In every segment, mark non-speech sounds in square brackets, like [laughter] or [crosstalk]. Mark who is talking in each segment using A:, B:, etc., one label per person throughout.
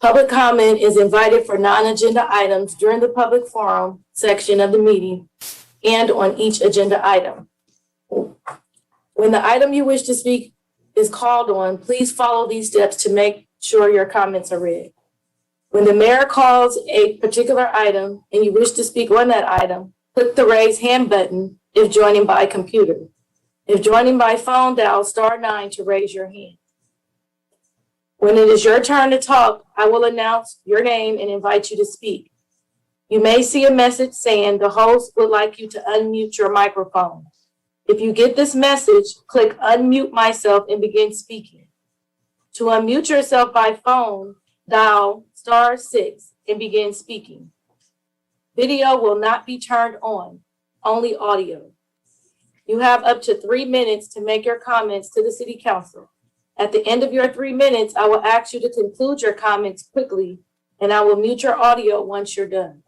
A: Public comment is invited for non-agenda items during the public forum section of the meeting and on each agenda item. When the item you wish to speak is called on, please follow these steps to make sure your comments are read. When the mayor calls a particular item and you wish to speak on that item, click the raise hand button if joining by computer. If joining by phone, dial star nine to raise your hand. When it is your turn to talk, I will announce your name and invite you to speak. You may see a message saying the host would like you to unmute your microphone. If you get this message, click unmute myself and begin speaking. To unmute yourself by phone, dial star six and begin speaking. Video will not be turned on, only audio. You have up to three minutes to make your comments to the city council. At the end of your three minutes, I will ask you to conclude your comments quickly, and I will mute your audio once you're done.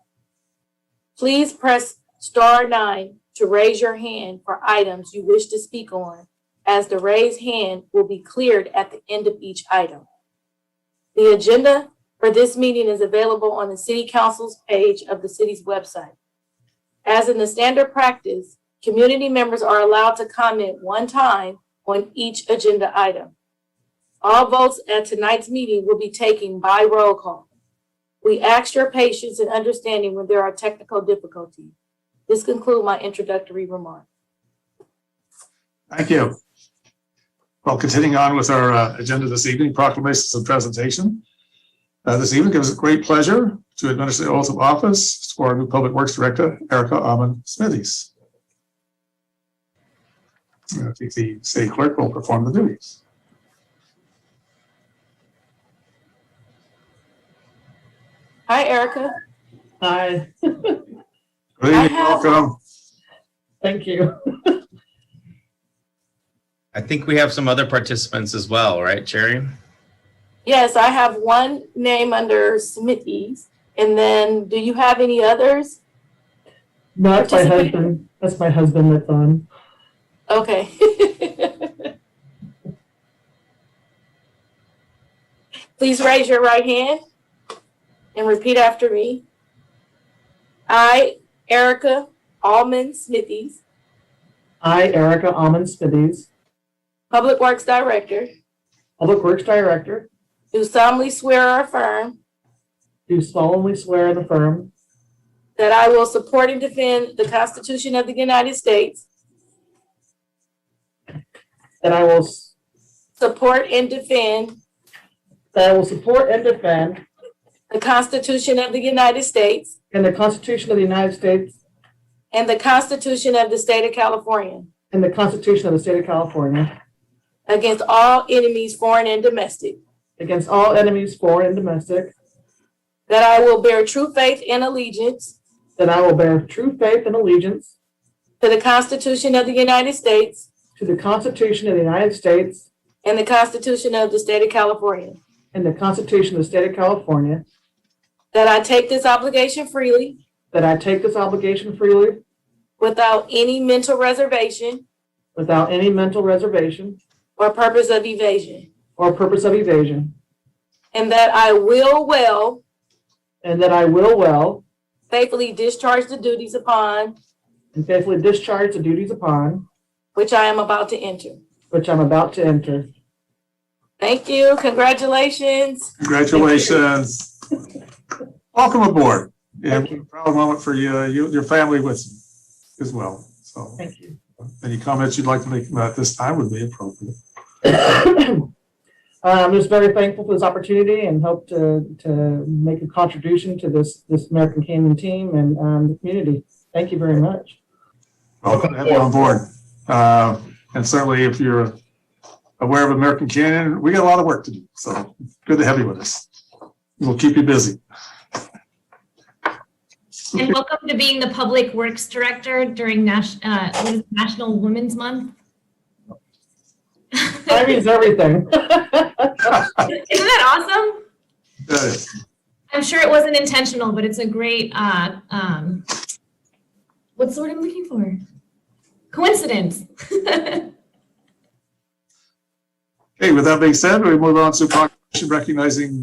A: Please press star nine to raise your hand for items you wish to speak on, as the raised hand will be cleared at the end of each item. The agenda for this meeting is available on the city council's page of the city's website. As in the standard practice, community members are allowed to comment one time on each agenda item. All votes at tonight's meeting will be taken by roll call. We ask your patience and understanding when there are technical difficulties. This concludes my introductory remarks.
B: Thank you. Well, continuing on with our uh, agenda this evening, proclamations and presentation. Uh, This evening gives us great pleasure to administer the oath of office to our new Public Works Director, Erica Amon Smithies. Uh, I think the city clerk will perform the duties.
A: Hi, Erica.
C: Hi,
B: Good
A: I
B: evening,
A: have-
B: welcome.
C: thank you.
D: I think we have some other participants as well, right, Jerry?
A: Yes, I have one name under Smithies. And then do you have any others?
C: Not my
A: Participate.
C: husband. That's my husband that's on.
A: Okay. [laughs] Please raise your right hand and repeat after me. I, Erica Almond Smithies,
C: I, Erica Almond Smithies,
A: Public Works Director,
C: Public Works Director,
A: do solemnly swear or affirm
C: do solemnly swear and affirm
A: that I will support and defend the Constitution of the United States,
C: that I will, s-
A: support and defend
C: that I will support and defend
A: the Constitution of the United States
C: in the Constitution of the United States
A: and the Constitution of the State of California
C: and the Constitution of the State of California
A: against all enemies, foreign and domestic,
C: against all enemies, foreign and domestic,
A: that I will bear true faith and allegiance
C: that I will bear true faith and allegiance
A: to the Constitution of the United States
C: to the Constitution of the United States
A: and the Constitution of the State of California,
C: and the Constitution of the State of California,
A: that I take this obligation freely
C: that I take this obligation freely
A: without any mental reservation
C: without any mental reservation
A: or purpose of evasion,
C: or purpose of evasion,
A: and that I will well
C: and that I will well
A: faithfully discharge the duties upon
C: and faithfully discharge the duties upon
A: which I am about to enter.
C: which I'm about to enter.
A: Thank you. Congratulations.
B: Congratulations. Welcome aboard. And a proud moment for you, uh, you- your family with you as well. So
C: Thank you.
B: any comments you'd like to make about this time would be appropriate.
C: Uh, I'm just very thankful for this opportunity and hope to, to make a contribution to this, this American Canyon team and um, the community. Thank you very [laughs] much.
B: Welcome to have you on board. Uh, And certainly if you're aware of American Canyon, we got a lot of work to do. So good to have you with us. We'll keep you busy.
E: And welcome to being the Public Works Director during Nash, uh, what is it, National Women's Month. Isn't [laughs]
C: That means everything. [laughs]
E: that awesome?
B: Good.
E: I'm sure it wasn't intentional, but it's a great, uh, um, what's the word I'm looking for? Coincidence. [laughs]
B: Okay, with that being said, we move on to proclamation recognizing